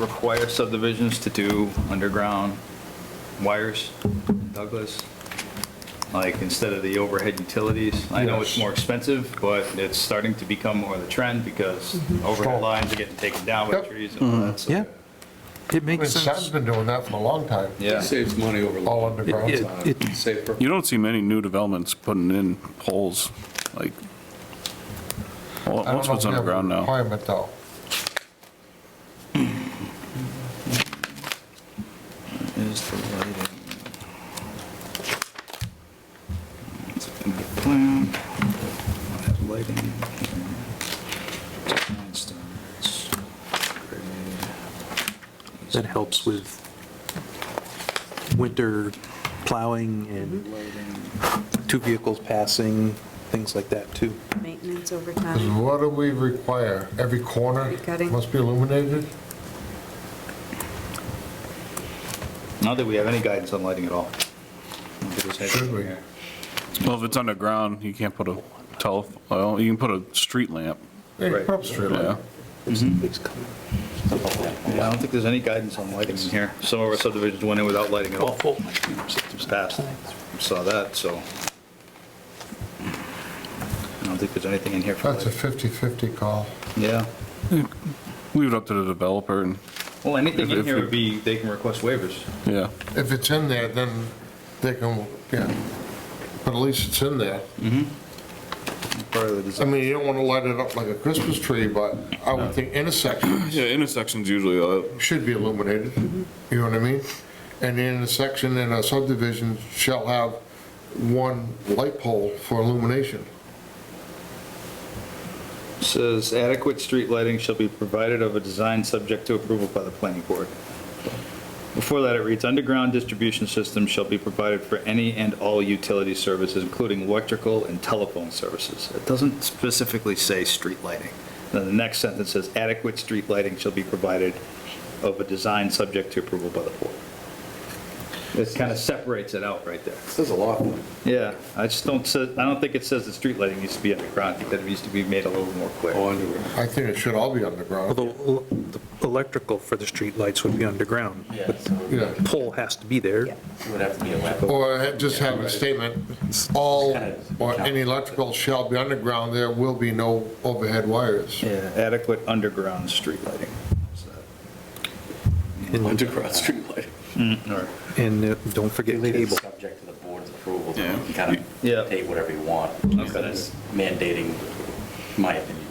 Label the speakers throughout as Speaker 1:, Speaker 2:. Speaker 1: require subdivisions to do underground wires in Douglas? Like, instead of the overhead utilities? I know it's
Speaker 2: Yes.
Speaker 1: more expensive, but it's starting to become more of the trend because overhead lines are getting taken down by
Speaker 2: Mm-hmm. Yep. Mm-hmm.
Speaker 1: trees and all that. so-
Speaker 3: Yeah. It
Speaker 2: I mean,
Speaker 3: makes
Speaker 2: Sam's
Speaker 3: sense.
Speaker 2: been doing that for a long time,
Speaker 1: Yeah.
Speaker 4: Saves money
Speaker 2: all
Speaker 4: over,
Speaker 2: underground.
Speaker 3: It- it- it-
Speaker 4: safer.
Speaker 5: You don't see many new developments putting in poles, like, well,
Speaker 2: I don't
Speaker 5: most
Speaker 2: know if
Speaker 5: of it's
Speaker 2: we have a
Speaker 5: underground now.
Speaker 2: Requirement though.
Speaker 1: Is the lighting? It's a big plan. Have Lighting. here. Nine stones. Great.
Speaker 3: That helps with winter plowing and two vehicles passing, things like that, too.
Speaker 6: Maintenance over
Speaker 2: 'Cause
Speaker 6: time.
Speaker 2: what do we require? Every corner
Speaker 6: Tree cutting.
Speaker 2: must be illuminated?
Speaker 1: Not that we have any guidance on lighting at all.
Speaker 2: Should we?
Speaker 5: Well, if it's underground, you can't put a tele, well, you can put a street lamp,
Speaker 2: Hey,
Speaker 1: Right.
Speaker 2: perhaps street light.
Speaker 5: yeah.
Speaker 1: Yeah, I don't think there's any guidance on lighting in here. Some of our subdivisions went in without lighting at all. Just passed. Saw that, so. I don't think there's anything in here for
Speaker 2: That's a
Speaker 1: lighting.
Speaker 2: 50-50 call.
Speaker 1: Yeah.
Speaker 5: Leave it up to the developer and,
Speaker 1: Well, anything in
Speaker 5: If-
Speaker 1: here
Speaker 5: if-
Speaker 1: would be, they can request waivers.
Speaker 5: yeah.
Speaker 2: If it's in there, then they can, yeah, but at least it's in there.
Speaker 1: Part of the
Speaker 2: I
Speaker 1: design.
Speaker 2: mean, you don't want to light it up like a Christmas tree, but I would think intersections
Speaker 5: Yeah, intersections usually, uh,
Speaker 2: should be illuminated, you know what I mean? And the intersection in a subdivision shall have one light pole for illumination.
Speaker 1: Says adequate street lighting shall be provided of a design subject to approval by the planning board. Before that, it reads, underground distribution systems shall be provided for any and all utility services, including electrical and telephone services. It doesn't specifically say street lighting. Then the next sentence says adequate street lighting shall be provided of a design subject to approval by the board. This kind of separates it out right there.
Speaker 4: Says a lot.
Speaker 1: Yeah, I just don't, say- I don't think it says that street lighting needs to be underground, I think that it needs to be made a little more clear.
Speaker 4: Oh, underground.
Speaker 2: I think it should all be underground.
Speaker 3: Although el- the electrical for the streetlights would be underground.
Speaker 7: Yeah,
Speaker 3: but
Speaker 7: so
Speaker 2: Yeah,
Speaker 3: Pole has to be there.
Speaker 7: it would have to be a lab.
Speaker 2: or ha- just have a statement, all, or any electrical shall be underground, there will be no overhead wires.
Speaker 1: Yeah, adequate underground street lighting.
Speaker 3: And
Speaker 4: Underground street lighting.
Speaker 1: Or-
Speaker 3: and, uh, don't forget
Speaker 7: Leave it
Speaker 3: cable.
Speaker 7: subject to the board's approval, so
Speaker 5: Yeah.
Speaker 7: you can kind of
Speaker 1: Yeah.
Speaker 7: dictate whatever you want. Instead of mandating, my opinion.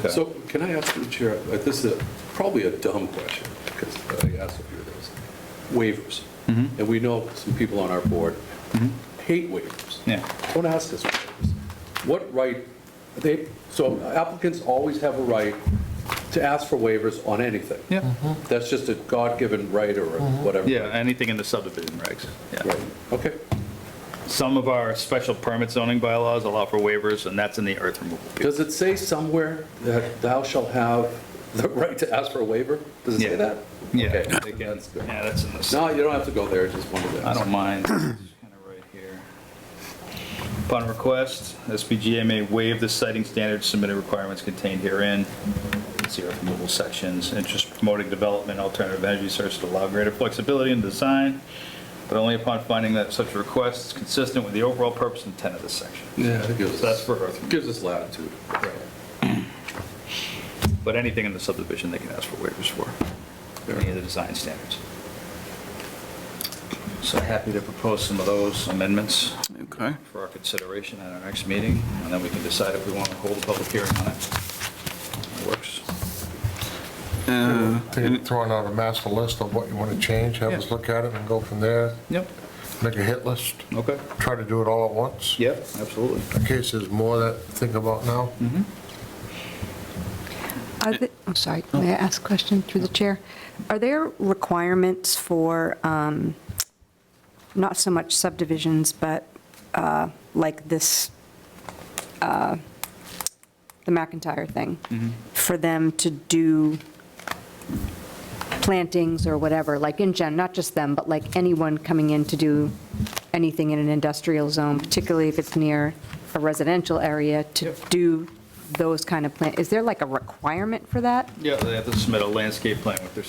Speaker 1: Okay.
Speaker 4: So can I ask the chair, uh, this is a- probably a dumb question, because I asked a few of those. Waivers.
Speaker 1: Mm-hmm.
Speaker 4: And we know some people on our board hate waivers.
Speaker 1: Yeah.
Speaker 4: Don't ask us waivers. What right, they, so applicants always have a right to ask for waivers on anything.
Speaker 1: Yeah,
Speaker 4: That's just a God-given right or whatever.
Speaker 1: Mm-hmm. yeah, anything in the subdivision regs. Yeah.
Speaker 4: Right, okay.
Speaker 1: Some of our special permit zoning bylaws allow for waivers, and that's in the earth removal. piece.
Speaker 4: Does it say somewhere that thou shalt have the right to ask for a waiver? Does it
Speaker 1: Yeah.
Speaker 4: say that?
Speaker 1: Yeah,
Speaker 4: Okay,
Speaker 1: they can-
Speaker 4: that's good.
Speaker 1: yeah, that's in the,
Speaker 4: No, you don't have to go there, just wanted to
Speaker 1: I
Speaker 4: ask.
Speaker 1: don't mind, it's kind of right here. Upon request, SBGA may waive the citing standards submitted requirements contained herein. It's the earth removal sections, interest promoting development, alternative energy sources to allow greater flexibility in design, but only upon finding that such a request is consistent with the overall purpose and intent of this section.
Speaker 4: Yeah, it gives us.
Speaker 1: That's for earth removal.
Speaker 4: Gives us latitude.
Speaker 1: But anything in the subdivision, they can ask for waivers for, any of the design standards. So happy to propose some of those amendments
Speaker 5: Okay.
Speaker 1: for our consideration at our next meeting, and then we can decide if we want to hold a public hearing on it. Works.
Speaker 5: Uh,
Speaker 2: They're Throwing out a master list of what you want to change, have us
Speaker 1: Yeah.
Speaker 2: look at it and go from there,
Speaker 1: Yep.
Speaker 2: make a hit list,
Speaker 1: Okay.
Speaker 2: try to do it all at once.
Speaker 1: Yep, absolutely. Mm-hmm.
Speaker 2: In case there's more that to think about now.
Speaker 6: Are the, I'm sorry, may I ask a question through the chair? Are there requirements for, um, not so much subdivisions, but uh, like this, uh, the McIntyre thing? For them to do plantings or whatever, like in gen, not just them, but like anyone coming in to do anything in an industrial zone, particularly if it's near a residential area, to do those kind of plant, is there like a requirement for that?
Speaker 1: Yeah, they have to submit a landscape plan with their